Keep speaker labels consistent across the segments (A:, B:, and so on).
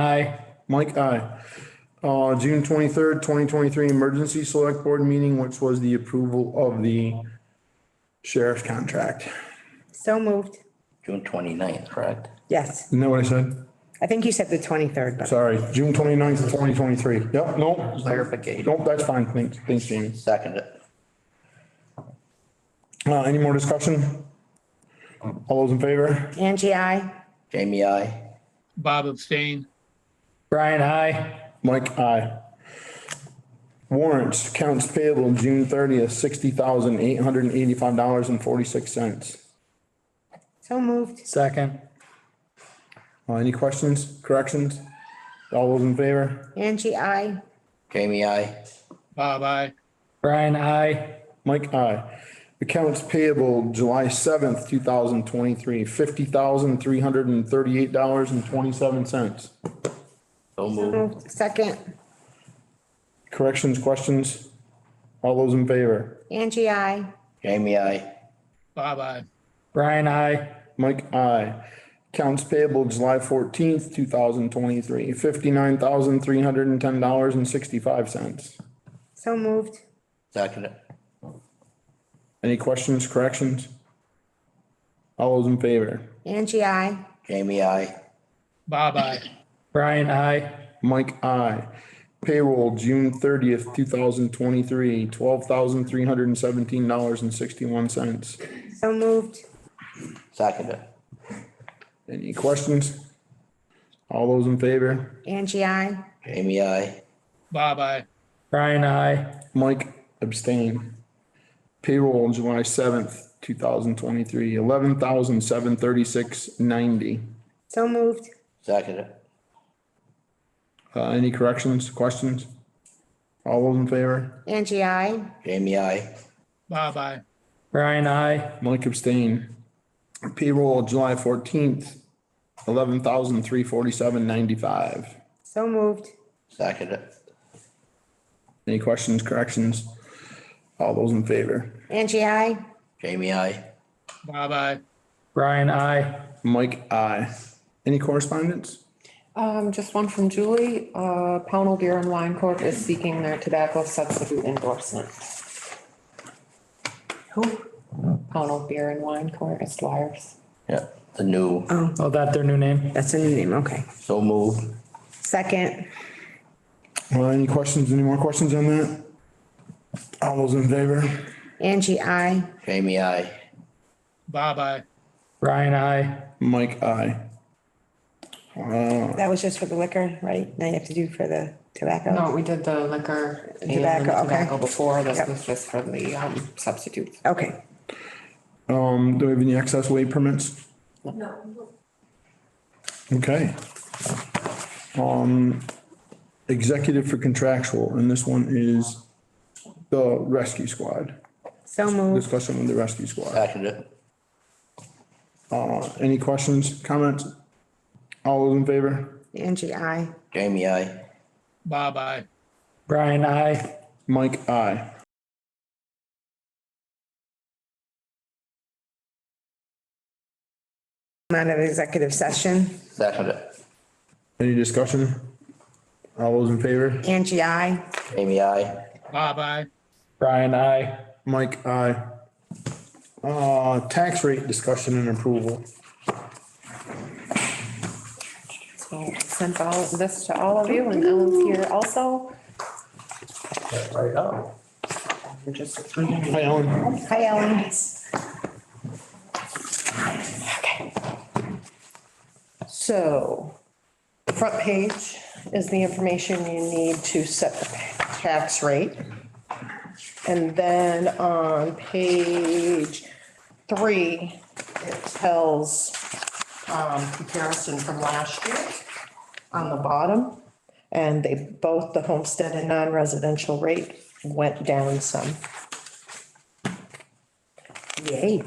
A: Aye.
B: Mike, aye. Uh, June twenty-third, twenty twenty-three emergency select board meeting, which was the approval of the sheriff's contract.
C: So moved.
D: June 29th, correct?
C: Yes.
B: Isn't that what I said?
C: I think you said the 23rd, but
B: Sorry, June twenty-ninth, twenty twenty-three. Yep, no,
D: Clarification.
B: nope, that's fine. Thanks, thanks, Jamie.
D: Second it.
B: Uh, any more discussion? All those in favor?
C: Angie, I.
D: Jamie, I.
E: Bob abstain.
A: Brian, aye.
B: Mike, aye. Warrants, accounts payable, June thirtieth, sixty thousand, eight hundred and eighty-five dollars and forty-six cents.
C: So moved.
A: Second.
B: Uh, any questions, corrections? All those in favor?
C: Angie, I.
D: Jamie, I.
E: Bob, I.
A: Brian, aye.
B: Mike, aye. Accounts payable, July seventh, two thousand twenty-three, fifty thousand, three hundred and thirty-eight dollars and twenty-seven cents.
D: So moved.
C: Moved. Second.
B: Corrections, questions? All those in favor?
C: Angie, I.
D: Jamie, I.
E: Bob, I.
A: Brian, aye.
B: Mike, aye. Accounts payable, July fourteenth, two thousand twenty-three, fifty-nine thousand, three hundred and ten dollars and sixty-five cents.
C: So moved.
D: Second it.
B: Any questions, corrections? All those in favor?
C: Angie, I.
D: Jamie, I.
E: Bob, I.
A: Brian, aye.
B: Mike, I Payroll, June thirtieth, two thousand twenty-three, twelve thousand three hundred and seventeen dollars and sixty-one cents.
C: So moved.
D: Second it.
B: Any questions? All those in favor?
C: Angie, I.
D: Jamie, I.
E: Bob, I.
A: Brian, aye.
B: Mike abstain. Payroll, July seventh, two thousand twenty-three, eleven thousand seven thirty-six ninety.
C: So moved.
D: Second it.
B: Uh, any corrections, questions? All those in favor?
C: Angie, I.
D: Jamie, I.
E: Bob, I.
A: Brian, aye.
B: Mike abstain. Payroll, July fourteenth, eleven thousand three forty-seven ninety-five.
C: So moved.
D: Second it.
B: Any questions, corrections? All those in favor?
C: Angie, I.
D: Jamie, I.
E: Bob, I.
A: Brian, aye.
B: Mike, aye. Any correspondence?
F: Um, just one from Julie, uh, Pownell Beer and Wine Corp is seeking their tobacco substitute endorsement. Who? Pownell Beer and Wine Corp, Dwyer's.
D: Yeah, the new.
A: Oh, that their new name?
C: That's a new name, okay.
D: So moved.
C: Second.
B: Uh, any questions, any more questions on that? All those in favor?
C: Angie, I.
D: Jamie, I.
E: Bob, I.
A: Brian, aye.
B: Mike, aye.
C: That was just for the liquor, right? Now you have to do for the tobacco?
F: No, we did the liquor and the
C: Tobacco, okay.
F: tobacco before, this
C: Yep.
F: was just for the, um, substitutes.
C: Okay.
B: Um, do we have any excess weight permits? No. Okay. Um, executive for contractual, and this one is the rescue squad,
C: So moved.
B: discussion with the rescue squad. Uh,
D: Second it.
B: Any questions, comments? All those in favor?
C: Angie, I.
D: Jamie, I.
E: Bob, I.
A: Brian, aye.
B: Mike, aye.
C: I'm out of executive session.
D: Second it.
B: Any discussion? All those in favor?
C: Angie, I.
D: Jamie, I.
E: Bob, I.
A: Brian, aye.
B: Mike, aye. Uh, tax rate discussion and approval.
F: So I sent all this to all of you and Ellen's here also.
D: Right up.
F: We're just.
B: Hi, Ellen.
C: Hi, Ellen.
F: So, the front page is the information you need to set the tax rate. And then on page three, it tells um, comparison from last year on the bottom. And they, both the homestead and non-residential rate went down some.
C: Yay.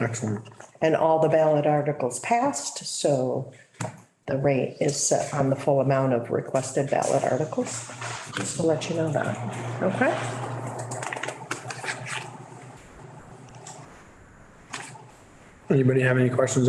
B: Excellent.
F: And all the ballot articles passed, so the rate is set on the full amount of requested ballot articles. Just to let you know that, okay?
B: Anybody have any questions